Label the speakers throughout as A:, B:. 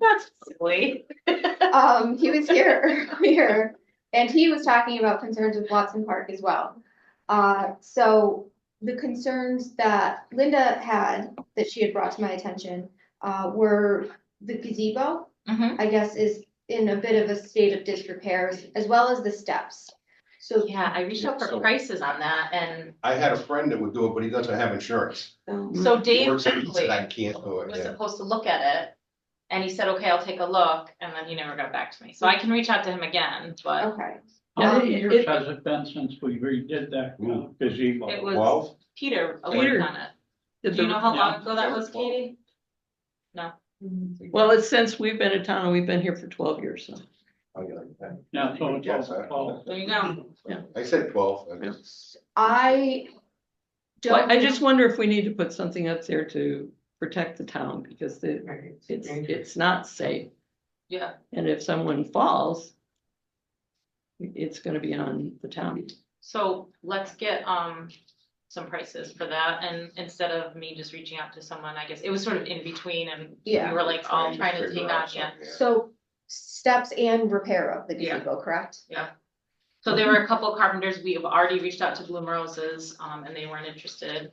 A: That's silly.
B: Um, he was here earlier, and he was talking about concerns with Watson Park as well. Uh, so the concerns that Linda had, that she had brought to my attention, uh, were the gazebo,
A: Mhm.
B: I guess, is in a bit of a state of disrepair, as well as the steps. So,
A: Yeah, I reached out for
C: So-
A: prices on that and
C: I had a friend that would do it, but he doesn't have insurance.
A: so Dave
C: Works at- he
A: Buckley
C: said, I can't do it,
A: was
C: yeah.
A: supposed to look at it. And he said, okay, I'll take a look. And then he never got back to me. So I can reach out to him again, but
B: okay,
D: How
A: Um,
D: many years
A: it-
D: has it been since we redid that uh, gazebo?
A: it was
C: Hmm. Well,
A: Peter
E: Peter
A: worked on it. Do you know how long ago that was, Katie? No.
E: Mm-hmm. Well, it's since we've been in town and we've been here for twelve years, so.
C: I'll get like that.
D: Yeah, so it's
C: Yes, I-
D: all- all-
A: There you go.
C: I said twelve. I
E: Yeah.
C: just-
B: I don't.
E: I just wonder if we need to put something up there to protect the town because the, it's, it's not safe.
A: Yeah.
E: And if someone falls, it's gonna be on the town.
A: So let's get, um, some prices for that. And instead of me just reaching out to someone, I guess it was sort of in between and we
B: Yeah.
A: were like all
C: Trying to
A: trying to
C: figure
A: take
C: out
A: on, yeah.
C: something,
B: So steps and repair of the
A: Yeah.
B: gazebo, correct?
A: So there were a couple carpenters, we have already reached out to Bloom Roses, um, and they weren't interested.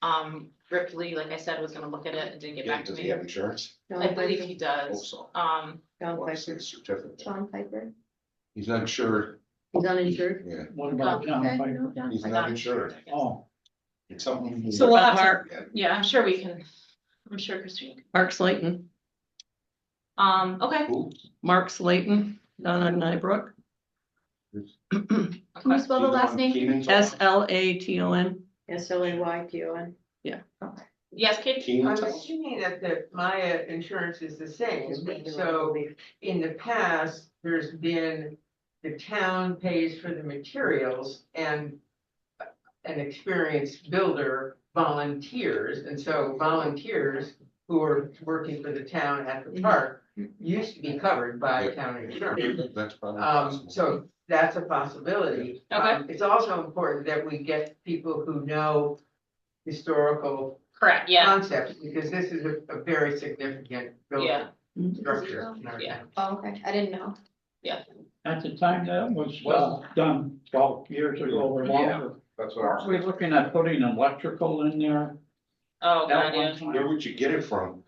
A: Um, Ripley, like I said, was gonna look at it and didn't get
C: Yeah,
A: back to
C: does he
A: me.
C: have insurance?
A: I believe he
C: Hope
A: does,
C: so.
A: um,
F: John
C: What's
F: Piper,
C: his certificate?
B: John Piper.
C: He's not insured,
F: he's uninsured.
C: yeah,
D: What about John
F: Okay,
D: Piper?
F: no, John
C: he's
A: I
C: not
A: got
C: insured,
A: I guess.
D: Oh,
C: it's something.
A: So we'll have to,
E: Mark,
A: yeah, I'm sure we can, I'm sure Christine, can.
E: Mark Slayton,
A: um, okay,
C: Who?
E: Mark Slayton, down on Nybrook,
B: Can you
A: okay,
B: spell the
C: He's
B: last
C: one
B: name?
C: Keenan's on?
E: S L A T O N.
F: S L A Y T O N.
A: yes, Kate,
C: Keenan's
G: I'm
C: on?
G: assuming that the Maya insurance is the same, so in the past, there's been, the town pays for the materials and an experienced builder volunteers, and so volunteers who are working for the town at the park used to be covered by town insurance.
C: That's probably.
G: Um,
C: possible.
G: so that's a possibility.
A: Okay.
G: Um, It's also important that we get people who know historical
A: correct, yeah,
G: concepts, because this is a, a very significant building
A: Yeah.
G: structure. in our
A: Yeah.
G: town.
B: Oh, okay, I didn't know.
D: at the time that was uh, done twelve years ago or longer.
C: That's what
D: Aren't
C: I'm.
D: we looking at putting electrical in there?
A: oh,
D: That
A: god,
D: one
A: yeah.
C: Where
D: time.
C: would you get it from?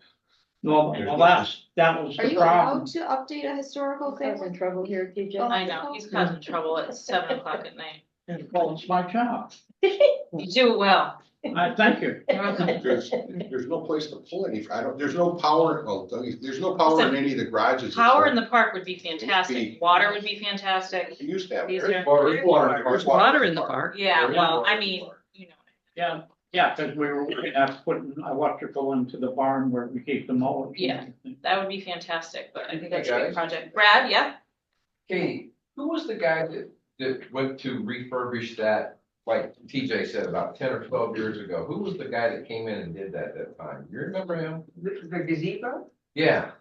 D: No, well, that's, that was
B: Are
D: the
B: you allowed
D: problem.
B: to update a historical
F: He's
B: thing? Oh,
F: in trouble here, TJ.
A: I know, he's causing trouble at seven o'clock at night,
D: Well, it's my job.
A: you do well.
D: I thank you.
A: You're welcome.
C: There's, there's no place to pull any, I don't, there's no power, well, there's no power in any of the garages.
A: Power in the park would be fantastic, water would be fantastic,
C: You used to have.
A: These are-
C: there's water- there's water-
D: There's
C: there's
E: Water in the park.
A: yeah,
C: There is
A: well,
C: water in
A: I
C: the
A: mean,
C: park.
A: you know.
D: Yeah, yeah, because we were looking at putting electrical into the barn where we keep the mulch. and
A: Yeah.
D: everything.
A: That would be fantastic, but I think
H: Hey,
A: that's a
H: guys.
A: good project. Brad, yeah?
H: Katie, who was the guy that, that went to refurbish that, like TJ said, about ten or twelve years ago? Who was the guy that came in and did that that time? You remember him?
G: The the gazebo,
H: Yeah.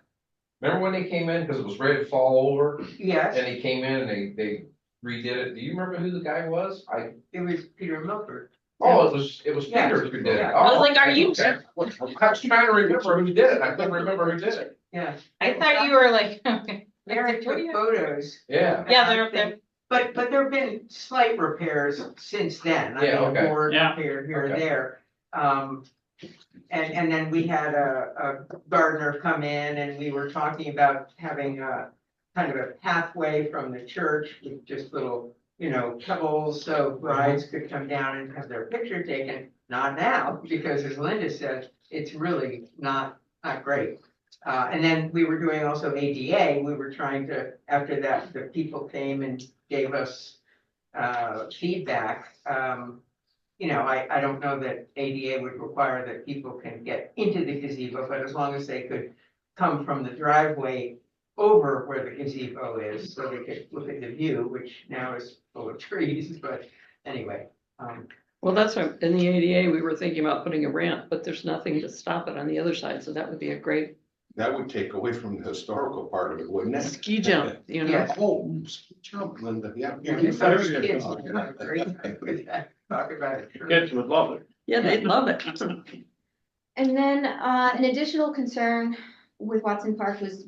H: Remember when they came in, because it was ready to fall over, and
G: yes,
H: he came in and they, they redid it? Do you remember who the guy was? I,
G: it was Peter Milford.
H: oh, it was, it was
G: Yeah.
H: Peter who did it. Oh,
A: I was like, are you-
H: Okay. I was trying to remember who did it, I couldn't remember who did it.
G: Yes.
A: I thought you were like,
G: Mary took photos,
H: Yeah,
A: yeah, they're, they're,
G: but, but there've been slight repairs since then. I mean,
H: Yeah, okay.
G: a board
D: Yeah.
G: repair here or
H: Okay.
G: there. Um, and, and then we had a, a gardener come in and we were talking about having a kind of a pathway from the church with just little, you know, pebbles, so brides
H: Mm-hmm.
G: could come down and have their picture taken. Not now, because as Linda said, it's really not, not great. Uh, and then we were doing also ADA, we were trying to, after that, the people came and gave us uh, feedback. Um, you know, I, I don't know that ADA would require that people can get into the gazebo, but as long as they could come from the driveway over where the gazebo is, so they could look at the view, which now is full of trees, but anyway. um,
E: Well, that's why in the ADA, we were thinking about putting a ramp, but there's nothing to stop it on the other side, so that would be a great
C: That would take away from the historical part of it, wouldn't it?
E: ski jump, you know?
C: Yeah, oh, ski jump, Linda, yeah.
G: yeah,
D: you
G: the
D: better
G: first
D: get
G: kids
D: going.
G: would have a great time with that. Talk about it.
D: Kids would love it.
E: Yeah, they'd love it.
B: And then, uh, an additional concern with Watson Park was